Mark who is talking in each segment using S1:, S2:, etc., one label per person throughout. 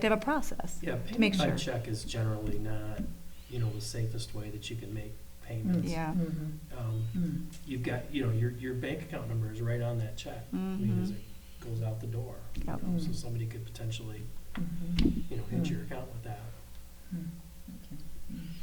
S1: to have a process.
S2: Yeah,
S1: to make
S2: payment
S1: sure.
S2: by check is generally not, you know, the safest way that you can make payments.
S1: Mm, Yeah.
S3: Mhm.
S2: Um,
S3: Mm.
S2: You've got, you know, your, your bank account number is right on that check. I mean, as
S1: Mhm.
S2: it goes out the door. you
S1: Yep. Mm.
S2: know, So somebody could potentially,
S3: Mhm.
S2: you know, hit
S3: Mm.
S2: your account with that.
S3: Mm.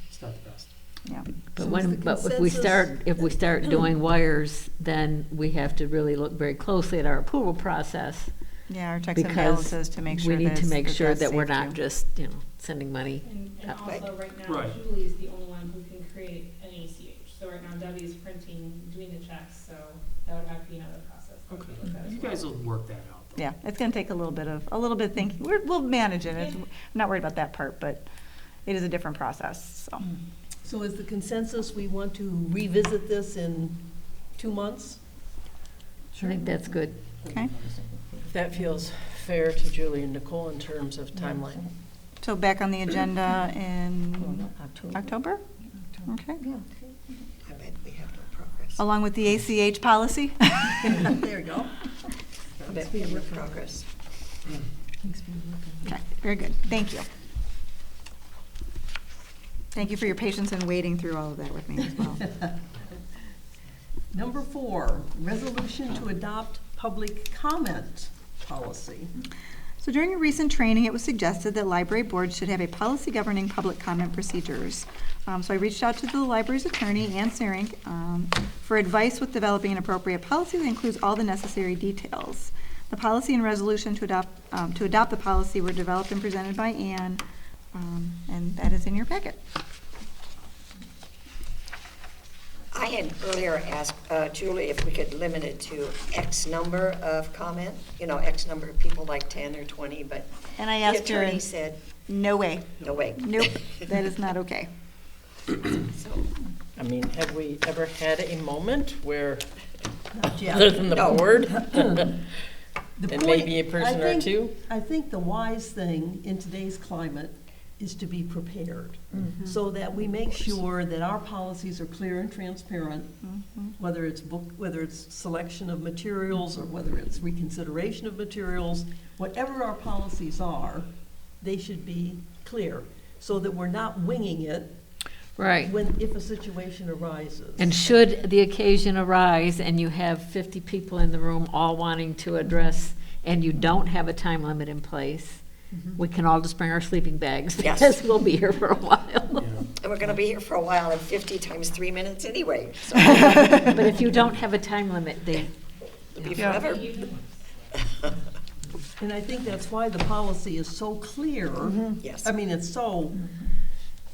S2: It's not the best.
S1: Yeah.
S4: But
S3: So is
S4: when,
S3: the
S4: but if we
S3: consensus-
S4: start, if we start doing wires, then we have to really look very closely at our approval process.
S1: Yeah, our checks and balances
S4: Because
S1: to make
S4: we
S1: sure that
S4: need to
S1: it's-
S4: make
S1: that
S4: sure
S1: that's
S4: that we're
S1: safe
S4: not
S1: too.
S4: just, you know, sending money.
S5: And, and
S4: that way.
S5: also, right now,
S2: Right.
S5: Julie is the only one who can create an ACH, so right now Debbie is printing, doing the checks, so that would have to be another process. that we look at as
S2: You
S5: well.
S2: guys will work that out. though.
S1: Yeah, it's gonna take a little bit of, a little bit of thinking. We're, we'll manage it. It's- I'm not worried about that part, but it is a different process, so.
S6: So is the consensus, we want to revisit this in two months?
S4: I think that's good.
S1: Okay.
S6: That feels fair to Julie and Nicole in terms of timeline.
S1: So back on the agenda in
S6: October.
S1: October? Okay,
S3: I bet we have no progress.
S6: Oh.
S1: along with the ACH policy?
S3: There you go. I bet we have no progress.
S1: Okay, very good. Thank you. Thank you for your patience and waiting through all of that with me as well.
S6: Number four, resolution to adopt public comment policy.
S1: So during a recent training, it was suggested that library boards should have a policy governing public comment procedures. Um, so I reached out to the library's attorney, Ann Serink, um, for advice with developing an appropriate policy that includes all the necessary details. The policy and resolution to adopt, um, to adopt the policy were developed and presented by Ann, um, and that is in your packet.
S3: I had earlier asked uh, Julie if we could limit it to X number of comment, you know, X number of people, like 10 or 20, but
S1: And I
S3: the
S1: asked her,
S3: attorney
S1: and
S3: said,
S1: no way,
S3: no way.
S1: nope, that is not okay.
S7: I mean, have we ever had a moment where, other
S6: Yeah.
S7: than the
S3: No.
S7: board,
S6: The
S7: and
S6: point-
S7: maybe a
S6: I
S7: person or
S6: think-
S7: two?
S6: I think the wise thing in today's climate is to be prepared,
S4: Mm-hmm.
S6: so that we make sure that our policies are clear and transparent,
S4: Mm-hmm.
S6: whether it's book, whether it's selection of materials, or whether it's reconsideration of materials, whatever our policies are, they should be clear, so that we're not winging it
S4: Right.
S6: when, if a situation arises.
S4: And should the occasion arise and you have fifty people in the room all wanting to address, and you don't have a time limit in place,
S6: Mm-hmm.
S4: we can all just bring our sleeping bags
S3: Yes.
S4: because we'll be here for a while.
S2: Yeah.
S3: And we're going to be here for a while, and 50 times three minutes anyway, so
S4: But if you don't have a time limit, they,
S3: it'll be
S1: Yeah.
S3: forever.
S6: And I think that's why the policy is so clear.
S4: Mm-hmm.
S3: Yes.
S6: I mean, it's so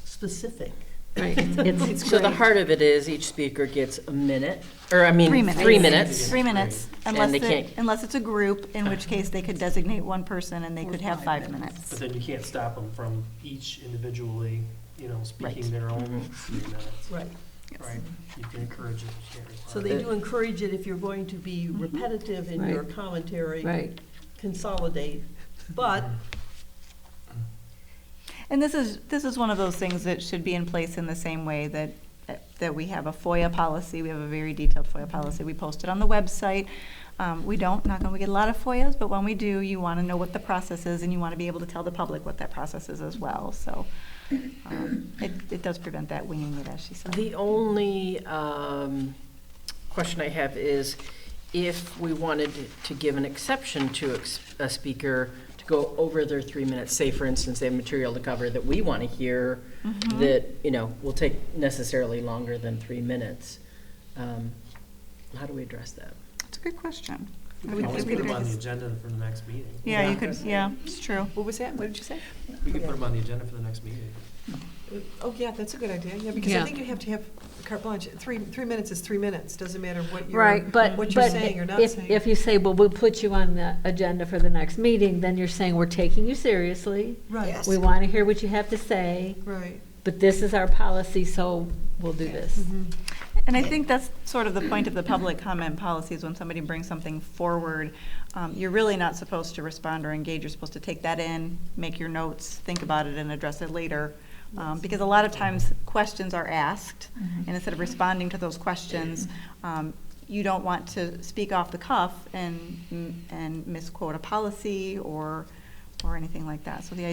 S6: specific.
S4: right, it's, it's
S7: So the
S4: great.
S7: heart of it is each speaker gets a minute, or I mean,
S1: Three minutes.
S7: three minutes.
S1: Three minutes,
S7: And
S1: unless,
S7: they
S1: it-
S7: can't-
S1: unless it's a group, in which case they could designate one person and they could have five
S2: But
S1: minutes.
S2: then you can't stop them from each individually, you know,
S1: Right.
S2: speaking their own three minutes,
S6: Right.
S2: right? You can encourage it, you can't require
S6: So
S2: it.
S6: they do encourage it if you're going to be repetitive in your
S4: Right.
S6: commentary.
S4: Right.
S6: Consolidate, but
S1: And this is, this is one of those things that should be in place in the same way that, that we have a FOIA policy. We have a very detailed FOIA policy. We post it on the website. Um, we don't, not gonna get a lot of FOIAs, but when we do, you wanna know what the process is and you wanna be able to tell the public what that process is as well, so. um, It, it does prevent that winging it, as she said.
S7: The only um, question I have is if we wanted to give an exception to ex- a speaker to go over their three minutes, say for instance, they have material to cover that we want to hear that, you know, will take necessarily longer than three minutes, um, how do we address that?
S1: That's a good question.
S2: We can always put them on the agenda for the next meeting.
S1: Yeah, you could, yeah, it's true.
S8: What was that? What did you say?
S2: We can put them on the agenda for the next meeting.
S8: Oh, yeah, that's a good idea. Yeah, because
S4: Yeah.
S8: I think you have to have carte blanche. Three, three minutes is three minutes. Doesn't matter what you're,
S4: Right, but,
S8: what you're
S4: but
S8: saying or not
S4: if,
S8: saying.
S4: if you say, well, we'll put you on the agenda for the next meeting, then you're saying we're taking you seriously.
S8: right,
S3: Yes.
S4: We want to hear what you have to say,
S8: right.
S4: but this is our policy, so we'll do
S8: Mm-hmm.
S4: this.
S1: And I think that's sort of the point of the public comment policy is when somebody brings something forward, um, you're really not supposed to respond or engage. You're supposed to take that in, make your notes, think about it, and address it later. Um, Because a lot of times, questions are asked, and instead of responding to those questions, um, you don't want to speak off the cuff and, and misquote a policy or, or anything like that. So the